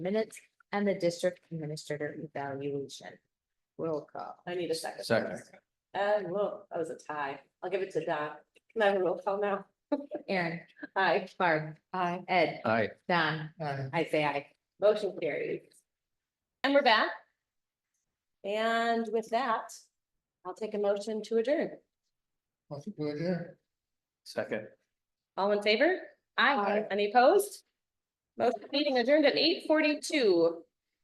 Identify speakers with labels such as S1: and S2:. S1: minutes and the district administrator evaluation. Roll call.
S2: I need a second.
S3: Second.
S2: Uh, whoa, that was a tie. I'll give it to Don. Can I have a roll call now?
S1: Aaron,
S2: Aye.
S1: Barb. Aye. Ed,
S3: Aye.
S1: Don, I say aye.
S2: Motion carries. And we're back. And with that, I'll take a motion to adjourn.
S3: Second.
S2: All in favor? Aye. Any opposed? Motion meeting adjourned at eight forty-two.